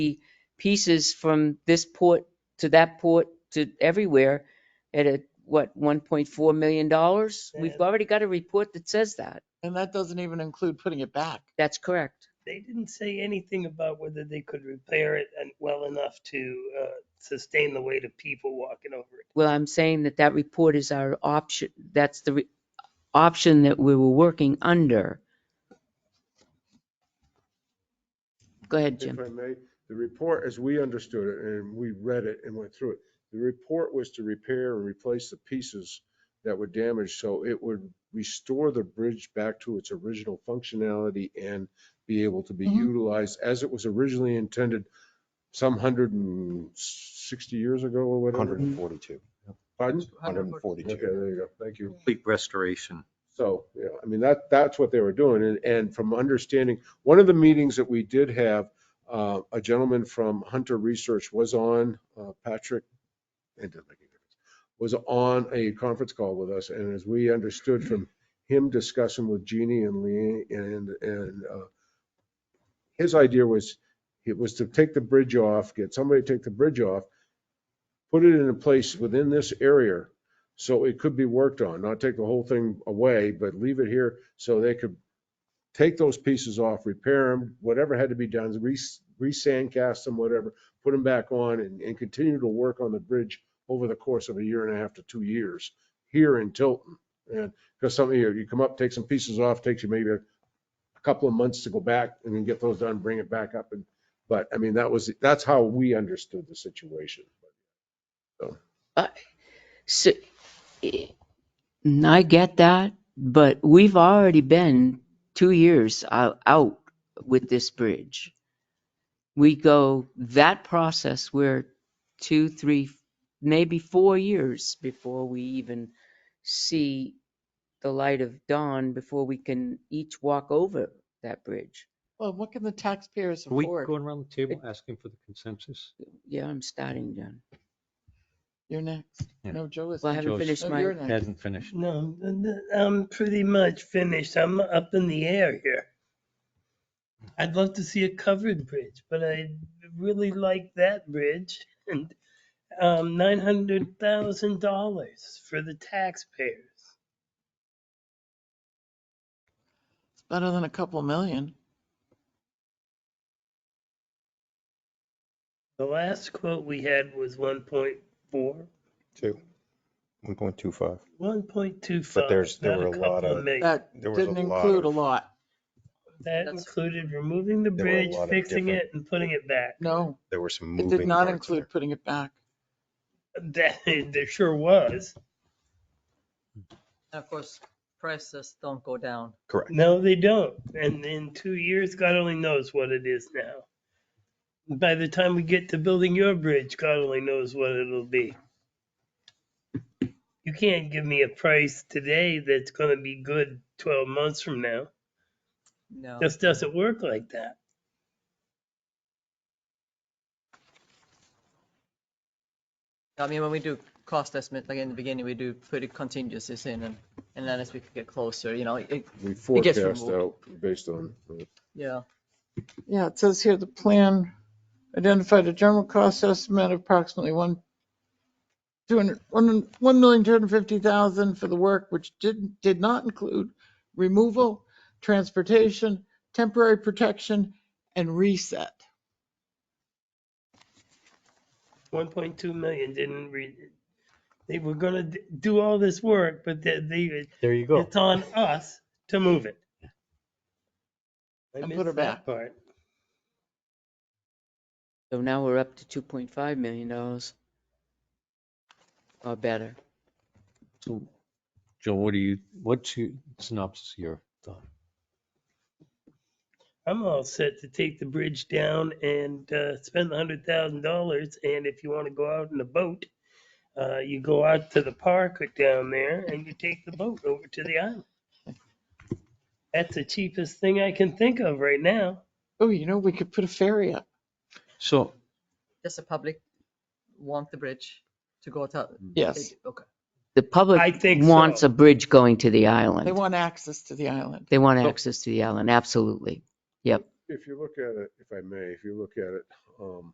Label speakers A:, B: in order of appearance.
A: pieces from this port to that port to everywhere at a, what, one point four million dollars? We've
B: Yeah.
A: already got a report that says that.
C: And that doesn't even include putting it back.
A: That's correct.
B: They didn't say anything about whether they could repair it and well enough to uh, sustain the weight of people walking over it.
A: Well, I'm saying that that report is our option, that's the re- option that we were working under. Go ahead,
D: If
A: Jim.
D: I may, the report, as we understood it, and we read it and went through it, the report was to repair and replace the pieces that were damaged, so it would restore the bridge back to its original functionality and be able to be
C: Mhm.
D: utilized as it was originally intended some hundred and sixty years ago or whatever.
E: 142,
D: Pardon? Okay,
E: 142.
D: there you go. Thank you.
E: Complete restoration.
D: So, yeah, I mean, that, that's what they were doing. And, and from understanding, one of the meetings that we did have, uh, a gentleman from Hunter Research was on, uh, Patrick, it doesn't make any difference, was on a conference call with us. And as we understood from him discussing with Jeannie and Lee and, and, uh, his idea was, it was to take the bridge off, get somebody to take the bridge off, put it in a place within this area so it could be worked on, not take the whole thing away, but leave it here so they could take those pieces off, repair them, whatever had to be done, re, re-sandcast them, whatever, put them back on and, and continue to work on the bridge over the course of a year and a half to two years here in Tilton. And because some of you, you come up, take some pieces off, takes you maybe a couple of months to go back and then get those done, bring it back up. And, but I mean, that was, that's how we understood the situation.
A: So, eh, I get that, but we've already been two years ou- out with this bridge. We go that process, we're two, three, maybe four years before we even see the light of dawn, before we can each walk over that bridge.
C: Well, what can the taxpayers
F: Are we
C: afford?
F: going around the table asking for the consensus?
A: Yeah, I'm starting, John.
C: You're next.
F: Yeah.
C: No, Joe is.
A: Well, I
C: next.
A: haven't
F: Joyce.
A: finished
C: No, you're
A: my,
C: next.
F: Hasn't finished.
B: No, n- n- I'm pretty much finished. I'm up in the air here. I'd love to see a covered bridge, but I really like that bridge and um, nine hundred thousand dollars for the taxpayers.
C: It's Better than a couple million.
B: The last quote we had was one point four.
E: Two. 1.25.
B: One point two five.
E: But there's- there were a lot of-
C: That
E: There was a
C: didn't
E: lot
C: include a
E: of-
C: lot.
B: That
A: That's-
B: included removing the
E: There were a
B: bridge,
E: lot of
B: fixing
E: different-
B: it and putting it back.
C: No,
E: There were some
C: it
E: moving.
C: did not
E: parts in
C: include putting it back.
B: That, there sure was.
G: And of course, prices don't go down.
E: there. Correct.
B: No, they don't. And in two years, God only knows what it is now. By the time we get to building your bridge, God only knows what it'll be. You can't give me a price today that's gonna be good twelve months from now.
G: No.
B: Just doesn't work like that.
G: I mean, when we do cost estimate, like in the beginning, we do put the contingencies in and, and then as we get closer, you know, it,
D: We
G: gets
D: forecast out
G: removed.
D: based on. uh,
G: yeah.
C: Yeah, it says here the plan identified a general cost estimate of approximately one, two hundred, one, one million, two hundred fifty thousand for the work, which didn't, did not include removal, transportation, temporary protection, and reset.
B: One point two million didn't read it. They were gonna d- do all this work, but they, they,
F: There you
B: it's on us to move it. I
C: And put
B: missed
C: her
B: that
C: back.
B: Part.
A: so now we're up to two point five million dollars. Or better.
F: So, Joe, what do you, what's your synopsis of your thought?
B: I'm all set to take the bridge down and uh, spend the hundred thousand dollars. And if you want to go out in a boat, uh, you go out to the park down there and you take the boat over to the island. That's the cheapest thing I can think of right now.
C: Oh, you know, we could put a ferry up.
F: So
G: Does the public want the bridge to go to?
C: Yes,
G: Okay.
A: The
B: I
A: public
B: think
A: wants
B: so.
A: a bridge going to the
C: they
A: island.
C: want access to the island.
A: They want
F: So-
A: access to the island, absolutely. Yep.
D: if you look at it, if I may, if you look at it, um,